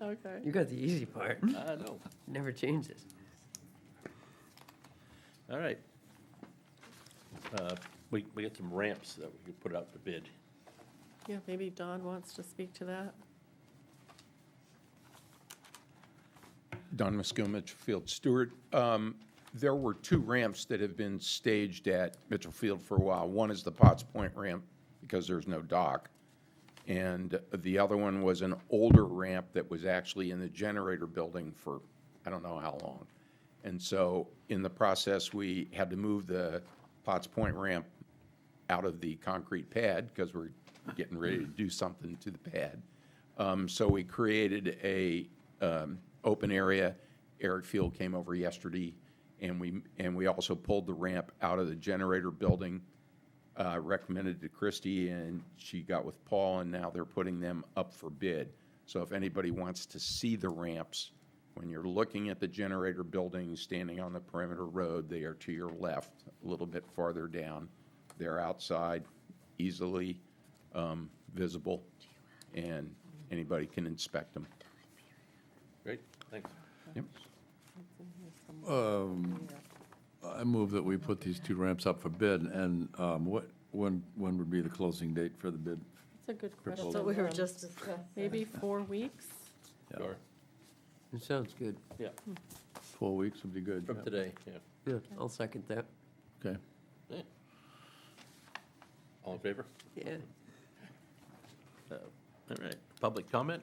okay. You got the easy part. I know. Never changes. All right. Uh, We, we got some ramps that we could put out to bid. Yeah, maybe Don wants to speak to that. Don Muskill, Mitchellfield Stewart. Um, There were two ramps that have been staged at Mitchellfield for a while. One is the Potts Point ramp because there's no dock. And the other one was an older ramp that was actually in the generator building for, I don't know how long. And so in the process, we had to move the Potts Point ramp out of the concrete pad because we're getting ready to do something to the pad. Um, so we created a um, open area. Eric Field came over yesterday, and we and we also pulled the ramp out of the generator building. Uh, recommended to Christy, and she got with Paul, and now they're putting them up for bid. So if anybody wants to see the ramps, when you're looking at the generator building, standing on the perimeter road, they are to your left, a little bit farther down. They're outside, easily um, visible, and anybody can inspect them. Great, thanks. Yep. I move that we put these two ramps up for bid, and um, what, when, when would be the closing date for the bid? That's a good That's question. what Don. discussing. Um, Maybe four weeks? Yeah. Sure, It sounds good. yeah, Four weeks would be good. from yeah. today, yeah. Yeah, I'll second that. Okay. Yeah. All in favor? Yeah. All right, public comment?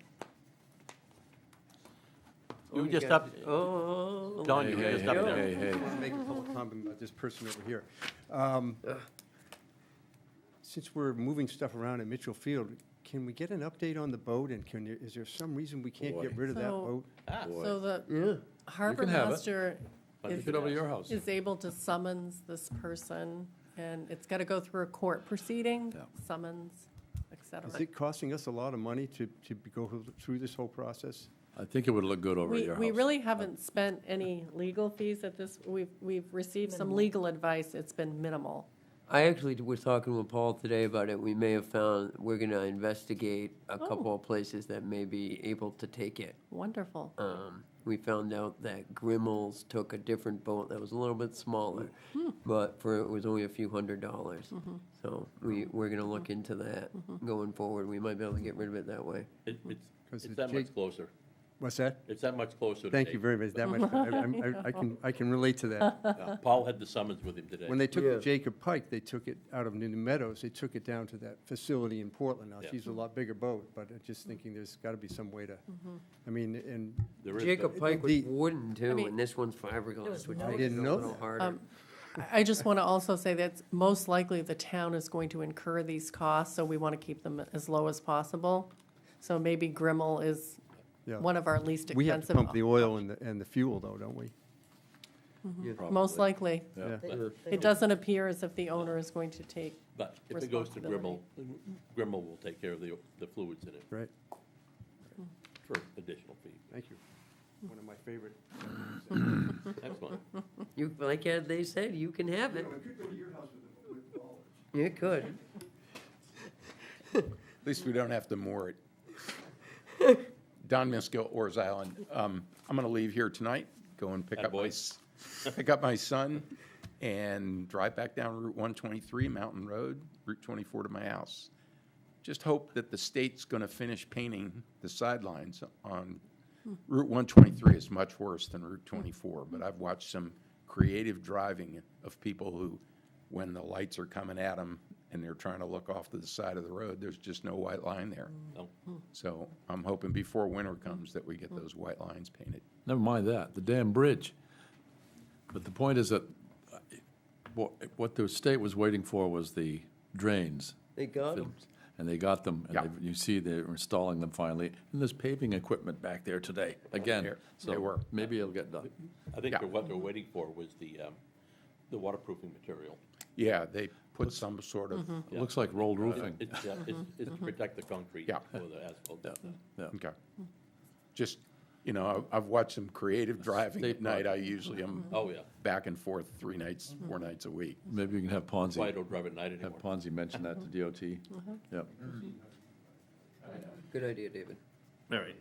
Oh, You you just got- up, Oh. Don, Hey, you hey, just up hey, there. hey, hey. make a public comment about this person over here. Um, Since we're moving stuff around in Mitchell Field, can we get an update on the boat, and can, there- is there some reason we can't get Boy. rid of that So- boat? Ah, So the harbor have it. master Why is Get over to your house. is able to summons this person, and it's got to go through a court proceeding, Yeah. summons, et cetera. Is it costing us a lot of money to, to go through this whole process? I think it would look good over at We, your house. we really haven't spent any legal fees at this, we've, we've received some legal advice, it's been minimal. I actually was talking with Paul today about it. We may have found we're going to investigate a Oh. couple of places that may be able to take it. Wonderful. Um, we found out that Grimmel's took a different boat that was a little bit smaller, but for it was only a few hundred dollars. So we, we're going to look into that going forward. We might be able to get rid of it that way. it- it's- 'Cause It's the that much jig- closer. What's that? It's that much closer today. Thank you very much, that much, I- I'm- I, I can, I can relate to that. Uh, Paul had the summons with him today. When they took Yeah. the Jacob Pike, they took it out of New Meadows, they took it down to that facility in Portland. Now, Yeah. she's a lot bigger boat, but I'm just thinking there's gotta be some way to, I mean, and There is Jacob that. Pike was the- wooden too, mean- and this one's fiberglass, which I makes it a didn't know little that. harder. I- I just want to also say that most likely the town is going to incur these costs, so we want to keep them as low as possible. So maybe Grimmel is Yeah. one of our least We have to expensive. pump the oil and the, and the fuel though, don't we? Most Probably. likely. Yeah. It doesn't appear as if the owner is going to take, But if it goes to Grimmel, Responsibility. Grimmel will take care of the, the fluids in it Right, for additional fee. thank you. One of my favorite. Mm-hmm. Excellent. You, like uh, they said, you can have it. You could. At least we don't have to moor it. Don Miskill, Oars Island. Um, I'm going to leave here tonight, go and pick up my, Attaboy. s- pick up my son and drive back down Route 123, Mountain Road, Route 24 to my house. Just hope that the state's going to finish painting the sidelines on Route 123 is much worse than Route 24, but I've watched some creative driving of people who, when the lights are coming at them and they're trying to look off to the side of the road, there's just no white line there. No. So I'm hoping before winter comes that we get those white lines painted. Never mind that, the damn bridge. But the point is that uh, what, what the state was waiting for was the drains. They got 'em. And they got them, and Yeah. they've- you see they're installing them finally, and there's paving equipment back there today, again. There- So there were. Maybe it'll get done. I think Yeah. that what they're waiting for was the, um, the waterproofing material. Yeah, they put some sort of, It looks like rolled roofing. It's, yeah, it's, it's uh, to protect the concrete Yeah. or the asphalt. Yeah. okay. Just, you know, I- I've watched some creative driving at State night. I usually am Oh, yeah. back and forth three nights, four nights a week. Maybe we can have That's why I Ponzi, don't drive at night have anymore. Ponzi mention that to DOT. Yep. Good idea, David. All right.